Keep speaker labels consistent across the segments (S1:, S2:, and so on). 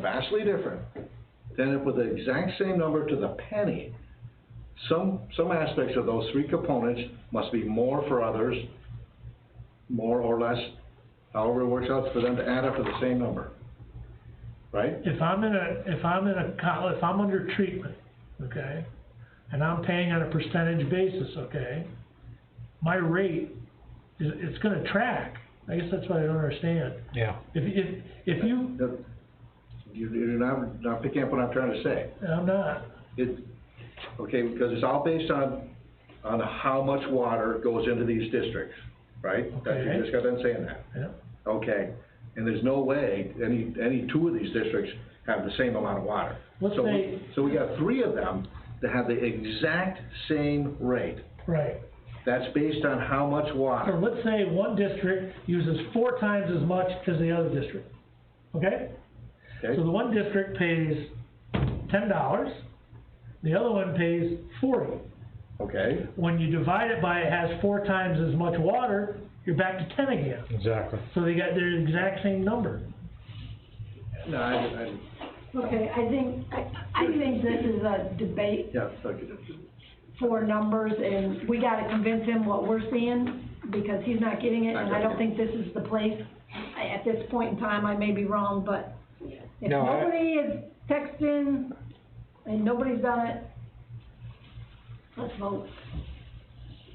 S1: vastly different than if with the exact same number to the penny. Some, some aspects of those three components must be more for others, more or less, however it works out for them to add up to the same number. Right?
S2: If I'm in a, if I'm in a col, if I'm under treatment, okay, and I'm paying on a percentage basis, okay, my rate is, it's gonna track. I guess that's what I don't understand.
S3: Yeah.
S2: If, if, if you,
S1: That- You, you're not, not picking up what I'm trying to say.
S2: I'm not,
S1: It, okay, because it's all based on, on how much water goes into these districts, right? That-
S2: Okay.
S1: You just got done saying that.
S2: yeah,
S1: Okay, and there's no way any, any two of these districts have the same amount of water.
S2: Let's
S1: So we-
S2: say-
S1: So we got three of them that have the exact same rate.
S2: right.
S1: That's based on how much
S2: Or
S1: water.
S2: let's say one district uses four times as much as the other district, okay?
S1: Okay,
S2: So the one district pays ten dollars, the other one pays forty.
S1: okay,
S2: When you divide it by it has four times as much water, you're back to ten again.
S3: Exactly.
S2: So they got their exact same number.
S1: no, I, I,
S4: Okay, I think, I, I think this is a debate
S1: yeah, okay.
S4: for numbers, and we gotta convince him what we're seeing, because he's not getting it, and I don't think this is the place. I- At this point in time, I may be wrong, but if
S3: No, I-
S4: nobody is texting, and nobody's done it, let's vote.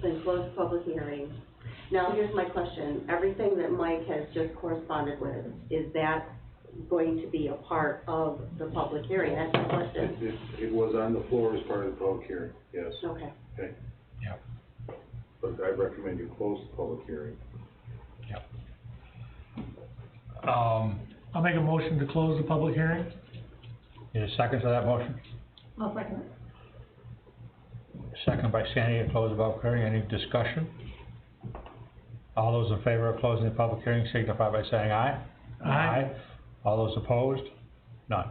S5: then close public hearing. Now, here's my question, everything that Mike has just corresponded with, is that going to be a part of the public hearing? That's my
S6: It,
S5: question.
S6: it, it was on the floor as part of the public hearing, yes,
S5: Okay,
S6: but I recommend you close the public hearing.
S3: Um,
S2: I'll make a motion to close the public hearing.
S3: is a second for that motion?
S4: I'll second it.
S3: Second by Sandy to close the public hearing. Any discussion? All those in favor of closing the public hearing signify by saying aye.
S2: Aye.
S3: All those opposed? None.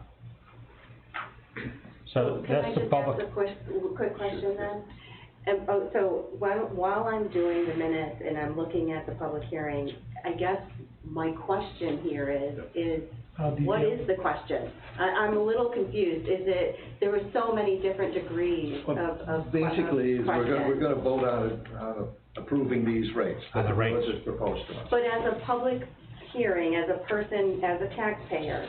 S3: So
S5: can I
S3: that's the
S5: just ask
S3: public,
S5: a quick, quick question then? And, oh, so while, while I'm doing the minutes and I'm looking at the public hearing, I guess my question here is, is
S2: How do you-
S5: What is the question? I, I'm a little confused, is it, there were so many different degrees of, of que- of
S1: Basically, is we're gonna, we're
S5: questions.
S1: gonna vote on, on approving these rates.
S3: On the rates.
S1: What's proposed to us.
S5: But as a public hearing, as a person, as a taxpayer,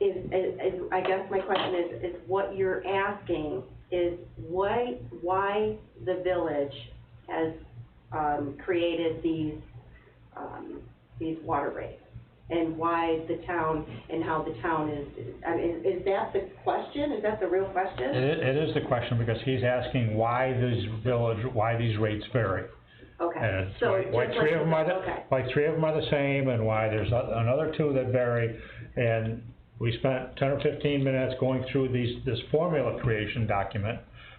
S5: is, is, is- I guess my question is, is what you're asking is why, why the village has, um, created these, um, these water rates? And why the town, and how the town is, I mean, is that the question? Is that the real
S3: it,
S5: question?
S3: it is the question because he's asking why these village, why these rates vary. And
S5: Okay,
S3: it's
S5: so
S3: why,
S5: it's
S3: why
S5: just
S3: three
S5: like-
S3: of them are the,
S5: okay.
S3: why three of them are the same and why there's a- another two that vary. And we spent ten or fifteen minutes going through these, this formula creation document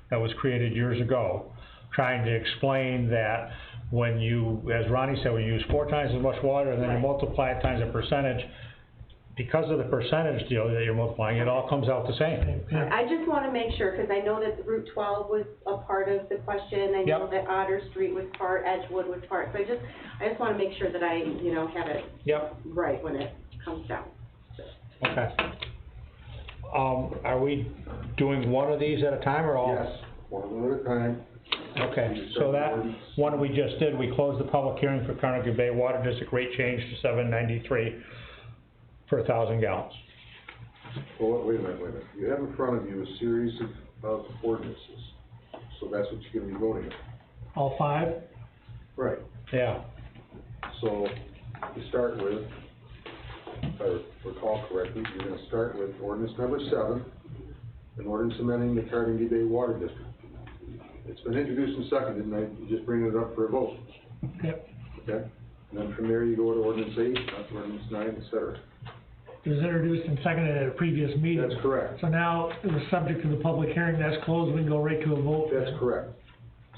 S3: that was created years ago, trying to explain that when you, as Ronnie said, when you use four times as much water and then you
S5: Right.
S3: multiply it times a percentage, because of the percentage deal that you're multiplying, it all comes out the same.
S2: Yeah.
S5: I just wanna make sure, cause I know that Route twelve was a part of the question, I know
S3: Yep.
S5: that Otter Street was part, Edgewood was part, so I just, I just wanna make sure that I, you know, have it
S3: Yep,
S5: right when it comes down.
S3: okay. Um, are we doing one of these at a time or all?
S6: Yes, one of them at a time.
S3: Okay, so that one we just did, we closed the public hearing for Carnegie Bay Water District rate change to seven ninety-three per thousand gallons.
S6: Well, wait a minute, wait a minute, you have in front of you a series of, of ordinances, so that's what you're gonna be voting on.
S2: All five?
S6: Right.
S3: Yeah,
S6: So, you start with, if I recall correctly, you're gonna start with ordinance number seven, an ordinance amending the Carnegie Bay Water District. It's been introduced and seconded, and I'm just bringing it up for a vote.
S2: Yep.
S6: Okay, and then from there you go to ordinance eight, up to ordinance nine, et cetera.
S2: It was introduced and seconded at a previous meeting.
S6: That's correct,
S2: So now it was subject to the public hearing, that's closed, we can go right to a vote.
S6: that's correct.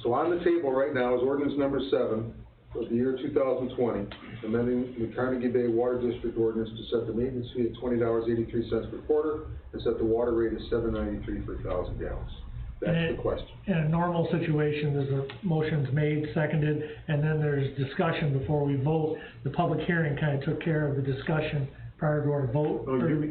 S6: So on the table right now is ordinance number seven of the year two thousand twenty, amending the Carnegie Bay Water District ordinance to set the maintenance fee at twenty dollars eighty-three cents per quarter and set the water rate at seven ninety-three per thousand gallons. That's the question.
S2: In a normal situation, there's a motion's made, seconded, and then there's discussion before we vote. The public hearing kinda took care of the discussion prior to our vote,
S1: Oh,
S2: or
S1: you-
S2: do we-